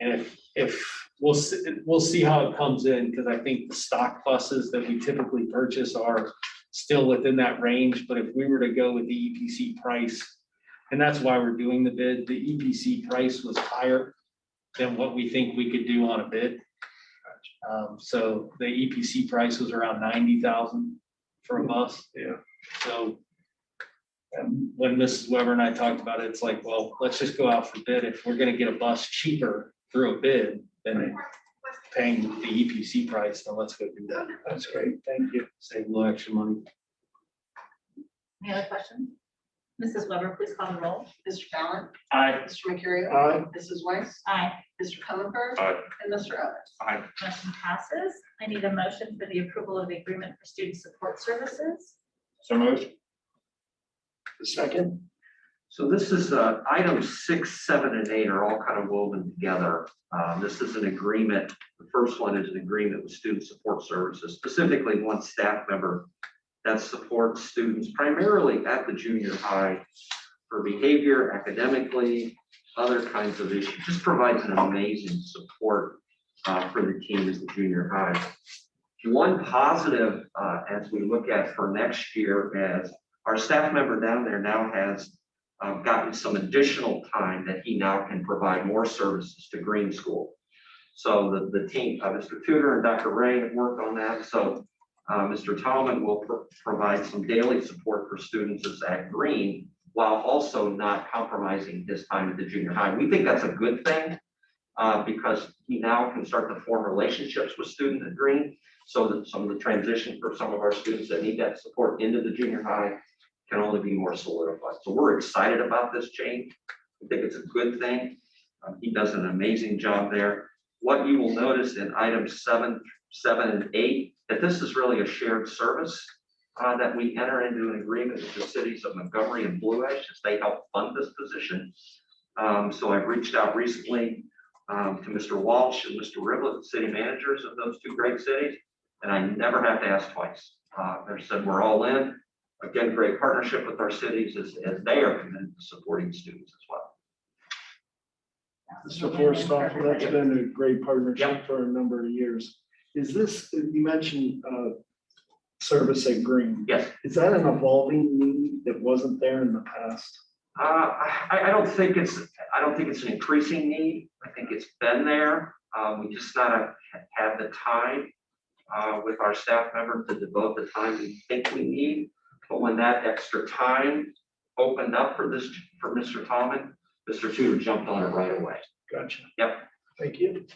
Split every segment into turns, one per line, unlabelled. And if, if, we'll, see we'll see how it comes in, because I think the stock buses that we typically purchase are still within that range, but if we were to go with the EPC price, and that's why we're doing the bid, the EPC price was higher than what we think we could do on a bid. Um, so the EPC price was around ninety thousand for a bus.
Yeah.
So um, when Mrs. Weber and I talked about it, it's like, well, let's just go out for bid. If we're gonna get a bus cheaper through a bid than paying the EPC price, then let's go do that.
That's great, thank you.
Save a little extra money.
Any other questions? Mrs. Weber, please call the roll.
Mr. Fallon,
I,
Mr. Mercurio.
Aye.
Mrs. Weiss,
Aye.
Mr. Comer.
Aye.
And Mr. Evans.
Motion passes. I need a motion for the approval of the agreement for student support services.
So moved. Second?
So this is, uh, items six, seven, and eight are all kind of woven together. Um, this is an agreement, the first one is an agreement with Student Support Services, specifically one staff member that supports students primarily at the junior high for behavior, academically, other kinds of issues, just provides an amazing support uh, for the team as the junior high. One positive, uh, as we look at for next year, as our staff member down there now has um, gotten some additional time that he now can provide more services to Green School. So the, the team, uh, Mr. Tudor and Dr. Ray have worked on that, so, uh, Mr. Tallman will pro- provide some daily support for students as at Green while also not compromising his time at the junior high. We think that's a good thing, uh, because he now can start to form relationships with students at Green, so that some of the transition for some of our students that need that support into the junior high can only be more solidified. So we're excited about this change. I think it's a good thing. Um, He does an amazing job there. What you will notice in items seven, seven and eight, that this is really a shared service uh, that we enter into an agreement with the cities of Montgomery and Blue Ash as they help fund this position. Um, So I've reached out recently um, to Mr. Walsh and Mr. Riblet, city managers of those two great cities, and I never have to ask twice. Uh, They said, we're all in again, great partnership with our cities as, as they are committed to supporting students as well.
The support staff, that's been a great partnership for a number of years. Is this, you mentioned, uh, service at Green.
Yes,
Is that an evolving need that wasn't there in the past?
uh, I, I don't think it's, I don't think it's an increasing need. I think it's been there. Uh, we just not have had the time uh, with our staff member to devote the time we think we need. But when that extra time opened up for this, for Mr. Tomlin, Mr. Tudor jumped on it right away.
Gotcha.
Yep.
Thank you.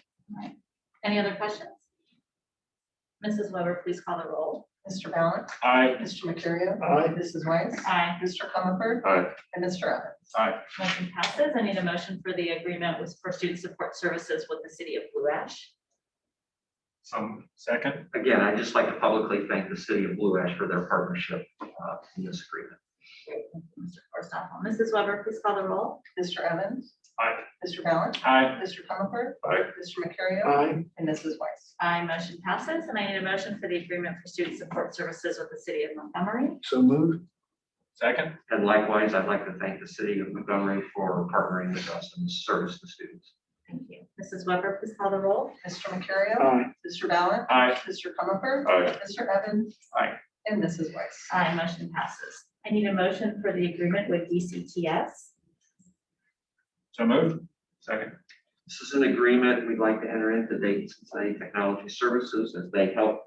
Any other questions? Mrs. Weber, please call the roll.
Mr. Fallon,
Aye.
Mr. Mercurio.
Aye.
Mrs. Weiss,
Aye.
Mr. Comer.
Aye.
And Mr. Evans.
Motion passes. I need a motion for the agreement with, for student support services with the city of Blue Ash.
Some second.
Again, I'd just like to publicly thank the city of Blue Ash for their partnership uh, in this agreement.
Great, thank you, Mr. Forstoff. Mrs. Weber, please call the roll.
Mr. Evans.
Aye.
Mr. Fallon,
Aye.
Mr. Comer.
Aye.
Mr. Mercurio.
Aye.
And Mrs. Weiss.
Aye, motion passes. And I need a motion for the agreement for student support services with the city of Montgomery.
So moved.
Second.
And likewise, I'd like to thank the city of Montgomery for partnering with us and service the students.
Thank you. Mrs. Weber, please call the roll.
Mr. Mercurio.
Aye.
Mr. Fallon,
Aye.
Mr. Comer.
Aye.
Mr. Evans.
Aye.
And Mrs. Weiss.
Aye, Uh, motion passes. I need a motion for the agreement with DCTS.
So moved. Second.
This is an agreement we'd like to enter into Dayton Cincinnati Technology Services as they help,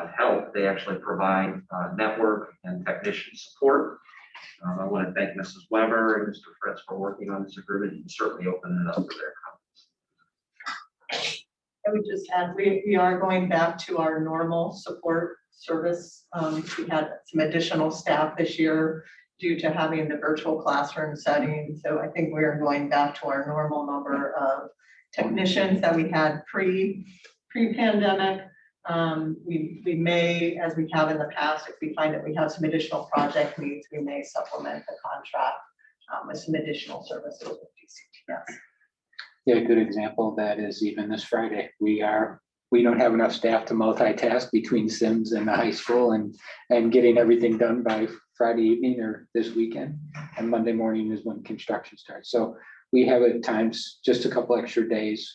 uh, help, they actually provide uh, network and technician support. Um, I want to thank Mrs. Weber and Mr. Fritz for working on this agreement and certainly opening it up for their comments.
I would just add, we, we are going back to our normal support service. Um, we had some additional staff this year due to having the virtual classroom setting. So I think we're going back to our normal number of technicians that we had pre, pre-pandemic. Um, we, we may, as we have in the past, if we find that we have some additional project needs, we may supplement the contract um, with some additional services with DCTS.
Yeah, a good example of that is even this Friday, we are, we don't have enough staff to multitask between Sims and the high school and, and getting everything done by Friday evening or this weekend. And Monday morning is when construction starts. So we have at times just a couple extra days